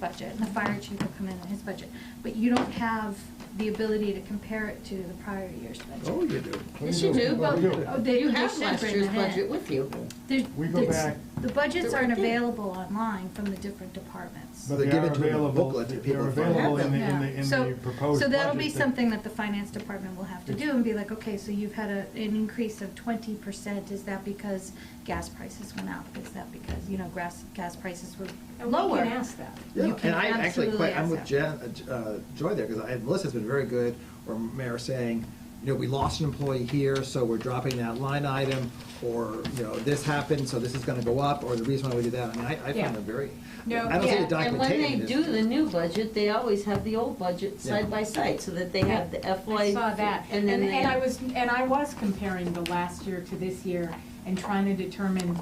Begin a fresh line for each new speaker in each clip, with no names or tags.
budget, and the fire chief will come in on his budget, but you don't have the ability to compare it to the prior year's
Oh,
budget.
you do.
Yes, you do, but
Oh, they-
you
they
have
should
last
bring
year's
that in.
budget with you.
There's-
We go
there's-
back-
The budgets
They're
aren't
right there.
available online from the different departments.
But
They
they
give
are
it to them in a
available,
booklet to
they're
people to find
available
out.
in the, in
Yeah.
the, in
So-
the proposed budget.
So that'll be
that-
something that the finance department will have to do and be like, okay, so you've had a, an increase of twenty percent, is that because gas prices went up? Is that because, you know, grass, gas prices were
And we
lower?
can ask that.
You
Yeah,
can
and I actually,
absolutely
quite- I'm
ask
with
that.
Jen, uh, uh, Joy there, because I, Melissa's been very good, or Mayor saying, you know, we lost an employee here, so we're dropping that line item, or, you know, this happened, so this is gonna go up, or the reason why we did that, I mean, I, I
Yeah.
find them very,
No,
I don't see
Yeah,
the documentation.
And when they do the new budget, they always have the old budget
Yeah.
side by side, so that they have the FY.
I saw that, and,
then
and
they
I
have-
was, and I was comparing the last year to this year and trying to determine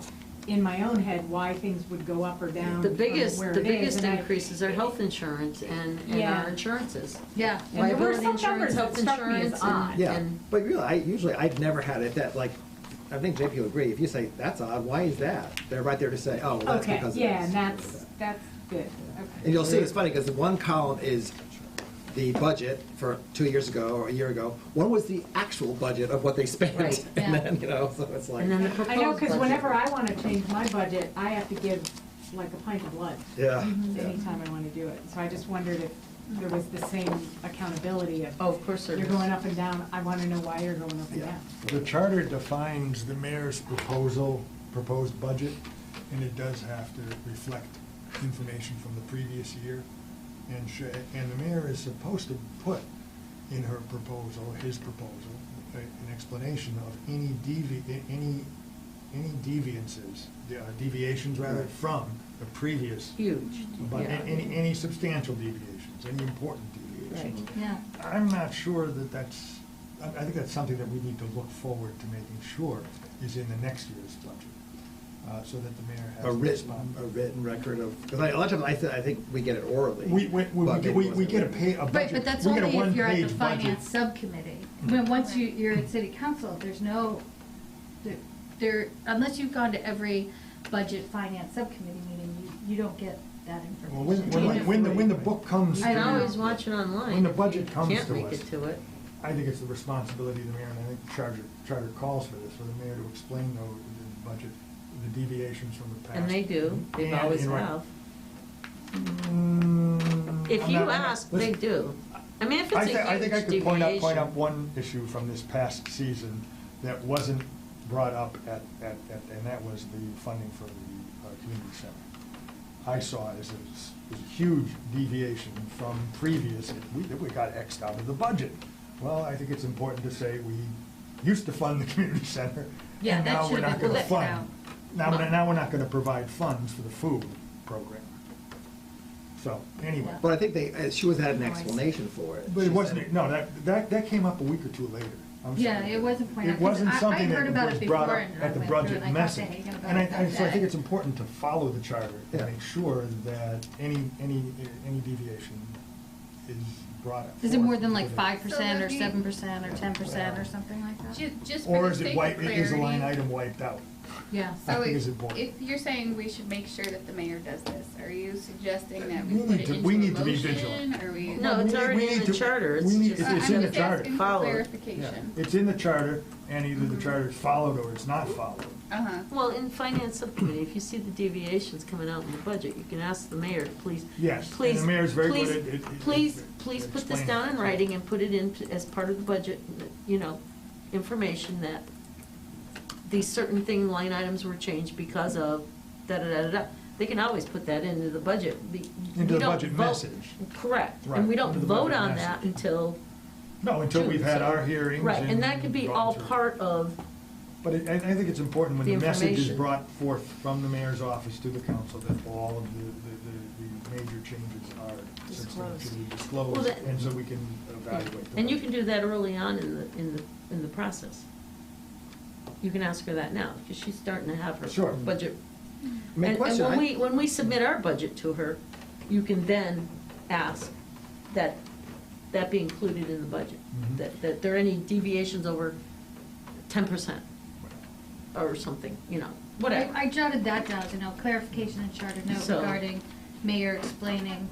in my own head why things would go up or down
The
from
biggest,
where
the
it is,
biggest
and I-
increases are health insurance and, and
Yeah.
our insurances.
Yeah.
And there were
Liability
some
insurance,
numbers that
health
struck me as
insurance,
odd.
and,
Yeah,
and
but really, I, usually, I've never had it that, like, I think JP will agree, if you say, that's odd, why is that? They're right there to say, oh, well, that's
Okay,
because of this.
yeah, and that's, that's good,
And
okay.
you'll see, it's funny, because one column is the budget for two years ago, or a year ago. One was the actual budget of what they spent,
Right,
and
yeah.
then, you know, so it's like,
and then the proposed
I know, because
budget.
whenever I want to change my budget, I have to give like a pint of blood
yeah. yeah.
anytime I want to do it. So I just wondered if there was the same accountability of,
Oh, of course there
you're
is.
going up and down, I want to know why you're going up and down.
The charter defines the mayor's proposal, proposed budget, and it does have to reflect information from the previous year. And sh and the mayor is supposed to put in her proposal, his proposal, a- an explanation of any devi, a- any, any deviances, uh, deviations rather,
Right.
from the previous,
Huge,
but a-
yeah.
any, any substantial deviations, any important deviations.
Right.
Yeah.
I'm not sure that that's, I I think that's something that we need to look forward to making sure is in the next year's budget, uh, so that the mayor has.
A
to
written,
respond.
a written record of, because a lot of times, I, thi- I think we get it orally.
We, we, we-
but maybe
we,
it
we
wasn't
get a
written.
pay, a budget.
Right, but that's
we get a
only if you're at the
one-page budget.
finance subcommittee. When, once you, you're at city council, there's no, there- there, unless you've gone to every budget finance subcommittee meeting, you, you don't get that
Well, when,
information.
when, when the, when the book comes.
I
to-
always watch it online.
When the
if
budget
you
comes to
Can't make
us.
it to it.
I think it's the responsibility of the mayor, and I think the charter, charter calls for this, for the mayor to explain though, the budget, the deviations from the past.
And they do, they've
And
always
in writing.
have.
Mm,
If
I'm
you
not- I'm not-
ask, they
listen,
do. I mean, if
I
it's
thi-
a
I think I
huge
could point out, point out
deviation.
one issue from this past season that wasn't brought up at, at, at- and that was the funding for the uh, community center. I saw it as a, s- as a huge deviation from previous, we, we got Xed out of the budget. Well, I think it's important to say we used to fund the community center,
Yeah,
and
that
now we're
should've
not
been
gonna
left out.
fund. Now, we're- now we're not gonna provide funds for the food program. So, anyway.
But I think they, uh, she was had an
Oh,
No, I see.
explanation for it.
But
She
it
said-
wasn't, no, that, that, that came up a week or two later. I'm sorry.
Yeah, it wasn't pointed out,
It
'cause
wasn't
I- I
something
heard
that
about
was
it
brought
before
up
and I
at the
went through it and
budget
I talked to
message.
Hagan about
And I,
it
I-
that
so I think
day.
it's important to follow the charter
Yeah.
and make sure that any, any, any deviation is brought up.
Is it more
forth
than like
with it.
five percent or seven
So that'd be-
percent or ten percent or something like that?
Ju- Just
Or
for the
is it
sake of
wiped, is the line
clarity,
item wiped out?
Yeah.
I
so
think
if-
is important.
If you're saying we should make sure that the mayor does this, are you suggesting that we
We
put
need
it
to-
into a
we need to be
motion?
vigilant.
Are we?
No,
we
it's
need- we
already in
need
the
to-
charter, it's
we need-
just-
I-
It's in the
I'm
charter.
just asking for
Follow it.
Yeah.
clarification.
It's in the charter, and either
Mm-hmm.
the charter is followed or it's not followed.
Uh-huh.
Well, in finance subcommittee, if you see the deviations coming out in the budget, you can ask the mayor, please.
Yes, and the
please,
mayor's very good
please-
at- at- at-
Please,
at
please put this
explaining.
down in writing and put it in as part of the budget, you know, information that these certain thing, line items were changed because of da-da-da-da-da. They can always put that into the budget. We- we
Into the
don't
budget
vote-
message.
Correct,
Right,
and we don't
into the
vote
budget
on
message.
that until.
No, until
June,
we've had
so-
our hearings.
Right, and that could be
gone
all
through.
part of
But it- I, I think it's important when
The
the message is
information.
brought forth from the mayor's office to the council that all of the, the, the, the major changes are substantially
Well,
disclosed,
that-
and so we can evaluate them.
And you can do that early on in the, in the, in the process. You can ask her that now, because she's starting to have her
Sure.
budget.
I mean,
And, and
question,
when
I-
we, when we submit our budget to her, you can then ask that, that be included in the budget.
Mhm.
Mm-hmm.
That, that there are any deviations over ten percent or something, you know,
I
whatever.
I jotted that down to know clarification and charter note
So-
regarding mayor explaining